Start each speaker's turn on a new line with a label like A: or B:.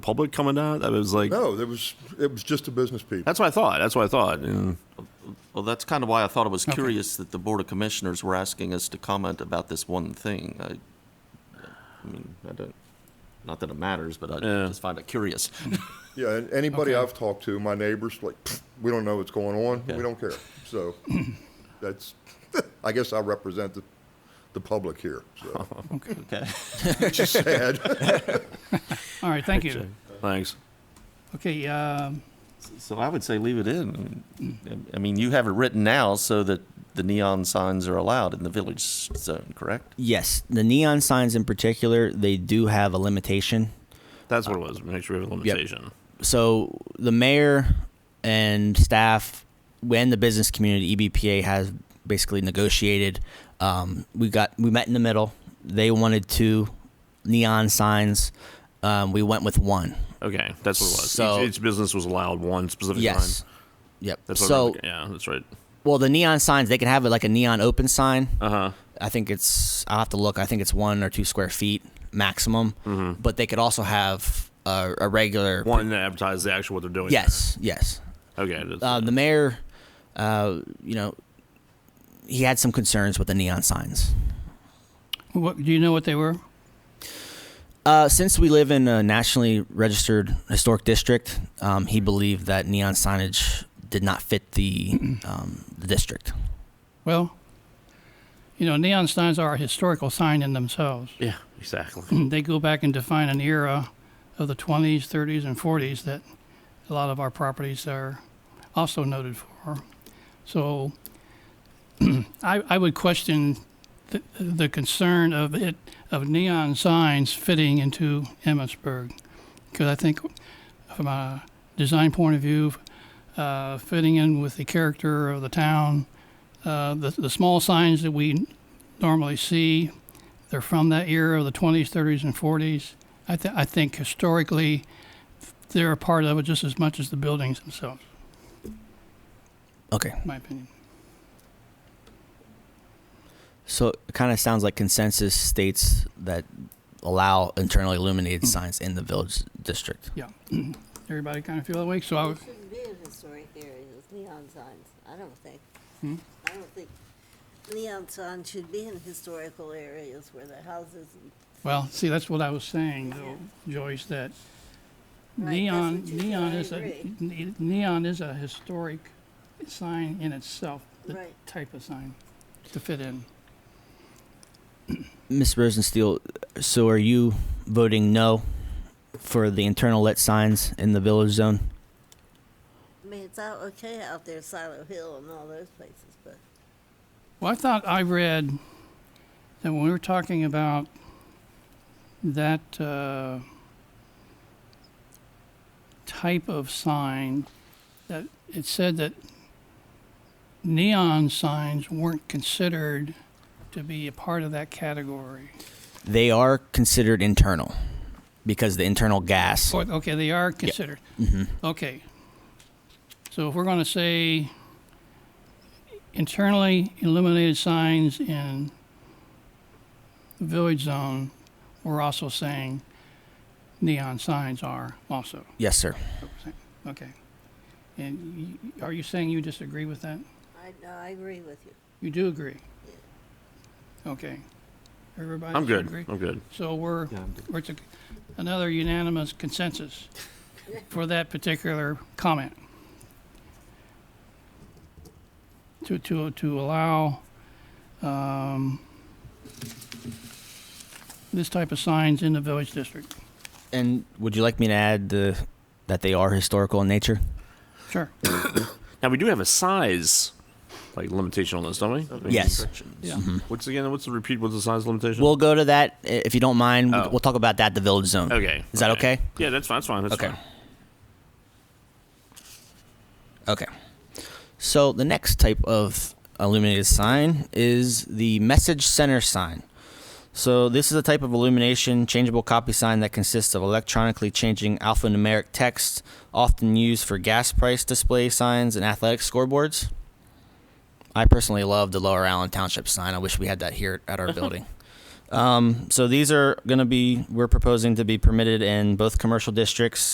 A: public coming down? I was like,
B: No, there was, it was just the business people.
A: that's what I thought. That's what I thought. And
C: Well, that's kind of why I thought it was curious that the Board of Commissioners were asking us to comment about this one thing. I, I mean, I don't, not that it matters, but I
A: Yeah.
C: just find it curious.
B: Yeah, and anybody
D: Okay.
B: I've talked to, my neighbors, like, "Pfft, we don't know what's going on,
C: Yeah.
B: we don't care. So that's, I guess I represent the, the public here, so,
D: Okay.
C: Okay.
B: which is sad.
D: All right, thank you.
A: thanks.
D: Okay, um,
C: So I would say leave it in. I mean, you have it written now so that the neon signs are allowed in the village zone, correct?
E: Yes, the neon signs in particular, they do have a limitation.
A: That's what it was. Make sure we have a limitation.
E: So the mayor and staff, when the business community E EBPA has basically negotiated, um, we got we met in the middle. They wanted two neon signs. Um, we went with one.
A: Okay, that's what it was.
E: So-
A: each, each business was allowed one specific
E: yes.
A: sign.
E: Yep.
A: That's what I
E: so
A: remember. yeah, that's right.
E: well, the neon signs they can have it like a neon open sign.
A: Uh huh.
E: I think it's I'll have to look. I think it's one or two square feet maximum. But they could also have a, a regular.
A: Mm-hmm. One to advertise the actual what they're doing.
E: Yes. Yes.
A: Okay. That's,
E: uh, the mayor, uh, you know, he had some concerns with the neon signs.
D: what, do you know what they were?
E: Uh, since we live in a nationally registered historic district, um, he believed that neon signage did not fit the, um, the district.
D: Well, you know, neon signs are a historical sign in themselves.
A: yeah. Exactly.
D: They go back and define an era of the 20s, 30s, and 40s that a lot of our properties are also noted for. So I, I would question the, the concern of it of neon signs fitting into Emmitsburg because I think from a design point of view, uh, fitting in with the character of the town, uh, the, the small signs that we normally see they're from that era of the 20s, 30s, and 40s. I, th- I think historically, they're a part of it just as much as the buildings themselves,
E: Okay.
D: in my opinion.
E: So it kind of sounds like consensus states that allow internally illuminated signs in the village district.
D: Yeah. Everybody kind of feel that way. So I
F: It
D: would,
F: shouldn't be in historic areas, neon signs, I don't think. I don't think neon signs should be in historical areas where the houses.
D: well, see, that's what I was saying, though, Joyce, that
F: Right, that's
D: neon,
F: what you-
D: neon
F: I
D: is a,
F: agree.
D: ne- neon is a historic sign in itself, the
F: Right.
D: type of sign to fit in.
E: Ms. Rosensteel, so are you voting no for the internal lit signs in the village zone?
F: I mean, it's out, okay out there, Silo Hill and all those places, but
D: Well, I thought I read that when we were talking about that uh, type of sign, that it said that neon signs weren't considered to be a part of that category.
E: They are considered internal because the internal gas.
D: Or- Okay, they are considered. Okay. So if we're going to say internally illuminated signs in village zone, we're also saying neon signs are also.
E: Yes, sir.
D: Okay. And y- are you saying you disagree with that?
F: I, no, I agree with you.
D: You do agree? Okay. Everybody
A: I'm good.
D: agree?
A: I'm good.
D: So we're, we're to another unanimous consensus for that particular comment. To, to, to allow, um, this type of signs in the village district.
E: And would you like me to add the, that they are historical in nature?
D: Sure.
A: Now we do have a size like limitation on this, don't we? I mean,
E: Yes.
D: Yeah.
A: What's again? What's the repeat? What's the size limitation?
E: We'll go to that i- if you don't mind.
A: Oh.
E: We'll, we'll talk about that at the village zone.
A: okay.
E: Is that okay?
A: Yeah, that's fine. That's fine. That's
E: Okay.
A: fine.
E: Okay. So the next type of illuminated sign is the message center sign. So this is a type of illumination changeable copy sign that consists of electronically changing alphanumeric text often used for gas price display signs and athletic scoreboards. I personally love the Lower Allen Township sign. I wish we had that here at our building. Um, so these are going to be, we're proposing to be permitted in both commercial districts